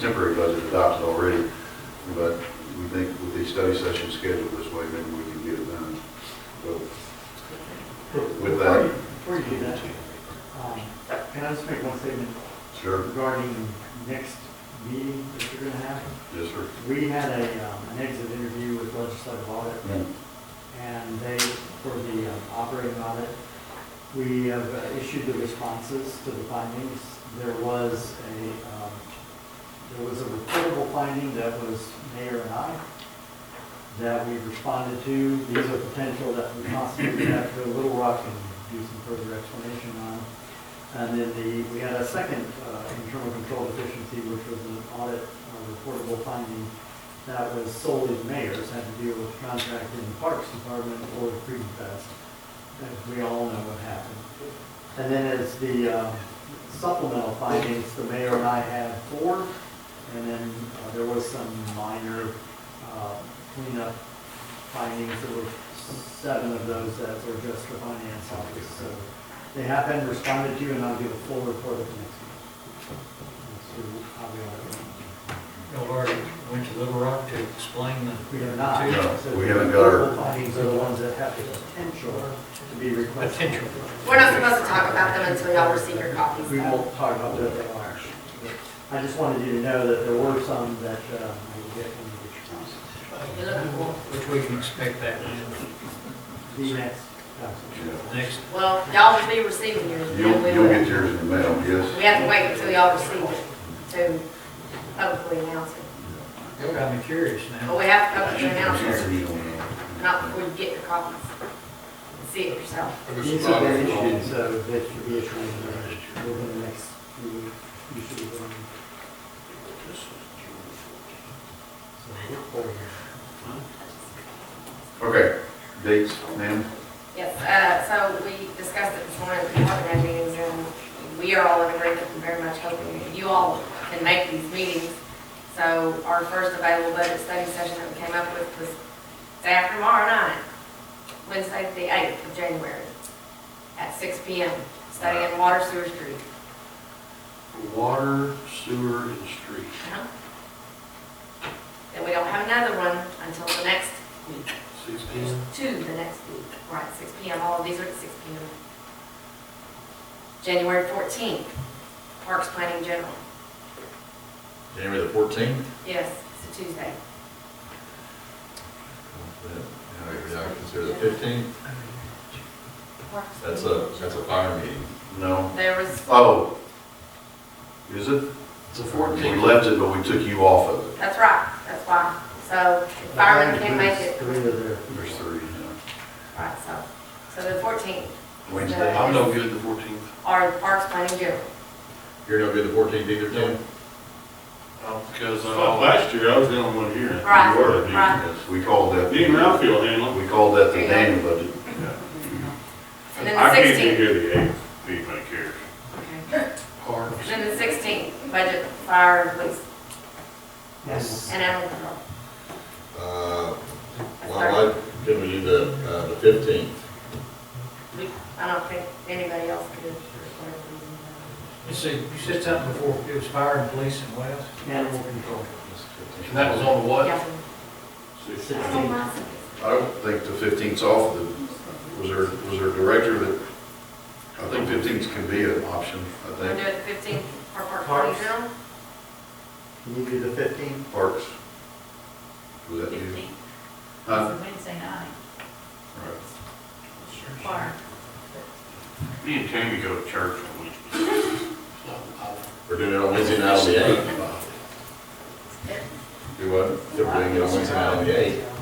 temporary budget adopted already, but we think with the study session scheduled this way, maybe we can get it done. So With that, Before you do that, um, can I just make one statement sure, regarding next meeting that you're gonna have? yes, sir. We had a, um, an exit interview with legislative audit, and they, for the um, operating audit, we have uh, issued the responses to the findings. There was a, um, there was a reportable finding that was mayor and I, that we responded to. These are potential that we possibly have to go to Little Rock and do some further explanation on. And then the, we had a second uh, internal control deficiency, which was an audit uh, reportable finding that was solely the mayor's, had to deal with contract in the Parks Department or the Freedom Fest. And we all know what happened. And then as the uh, supplemental findings, the mayor and I had four, and then uh, there was some minor uh, cleanup findings, there were seven of those that were just for finance office, so they have been responded to, and I'll give a full report at the next meeting. So I'll be all right. No, Laura, went to Little Rock to explain the. We have not. No, So we haven't got our- The findings are the ones that have the potential to be requested. Potential. We're not supposed to talk about them until y'all receive your copies. We won't talk about what they are. I just wanted you to know that there were some that uh, I will get from the response. Which we can expect that in The next uh, council. Yeah. the next, Well, y'all will be receiving yours. and You'll, we you'll will. get yours in the mail, We yes? have to wait until y'all receive it to publicly announce it. I'm curious But now. we have to publicly announce yours, You don't know. not before you get your copies. See it yourself. These have been issued, so that should be issued uh, within the next few weeks. You should be going. So look forward. Okay, dates, ma'am? Yes, uh, so we discussed it this morning, we haven't had meetings, and we are all in agreement, and very much hoping that you all can make these meetings. So our first available budget study session that we came up with was day after tomorrow night, Wednesday, the eighth of January, at six P M, studying water sewer street. Water, sewer, and street. Uh-huh. Then we don't have another one until the next week, Six P M. to the next week, right, six P M, all of these are at six P M. January fourteenth, Parks Planning General. January the fourteenth? Yes, it's a Tuesday. I consider the fifteenth, that's a, that's a fire meeting. No. There was, Oh, is it? It's a We fourteen. left it, but we took you off of it. that's right, that's why. So if uh, firemen can't make it, Three of their- There's three, yeah. right, so, so the fourteenth. Wednesday. I'm no good the fourteenth. Our Parks Planning General. You're no good the fourteenth either, Tim? Because, Well, uh, last year, I was the only one here. Right, You were. right. Yes, we called that, Me and we Ralphie will handle it. called that the Daniel budget. And then I the can't be sixteenth. here the eighth, if anybody cares. And parks. then the sixteenth, budget, fire, police, Yes. and animal control. Uh, That's well, our- I, can we do the, uh, the fifteenth? we- I don't think anybody else could. for whatever reason. You said, you said something before, it was fire and police and what else? Animal control. And that was on the what? Yeah. Sixteen. Oh, I don't mind. I don't think the fifteenth's off, the, was there, was there a director that, I think fifteenth can be an option, I We'll do think, it the fifteenth for Parks Planning Parks. General. Can you do the fifteenth? parks. Was that you? Huh? Wednesday night, Right. choir. Me and Tammy go to church on Wednesday. We're doing it on Wednesday night on the eighth. Do what? If we're doing it on Wednesday night on the eighth.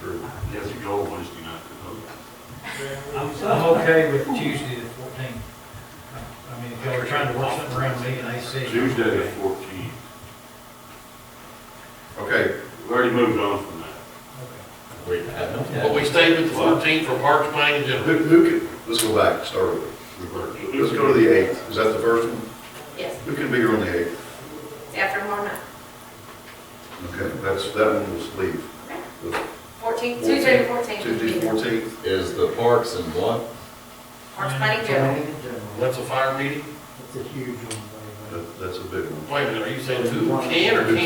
True. You have to go Wednesday night to vote. I'm, I'm okay with Tuesday the fourteenth. I mean, if y'all are trying to work something around me and I see. Tuesday the fourteenth. Okay, We've already moved on from that. Okay. We have not But we stayed with the fourteenth for parks, planning, and who, who can, let's go back, start with, reverse. let's go to the eighth, is that the first one? Yes, Who can be here on the eighth? it's after tomorrow night. Okay, that's, that one was leave. The Fourteenth, Tuesday the Tuesday, fourteenth. fourteenth, Is the parks and what? Parks Planning General. Planning in general. That's a fire meeting? It's a huge one. by the way. that, that's a big one. Wait a minute, are you saying who can or can't?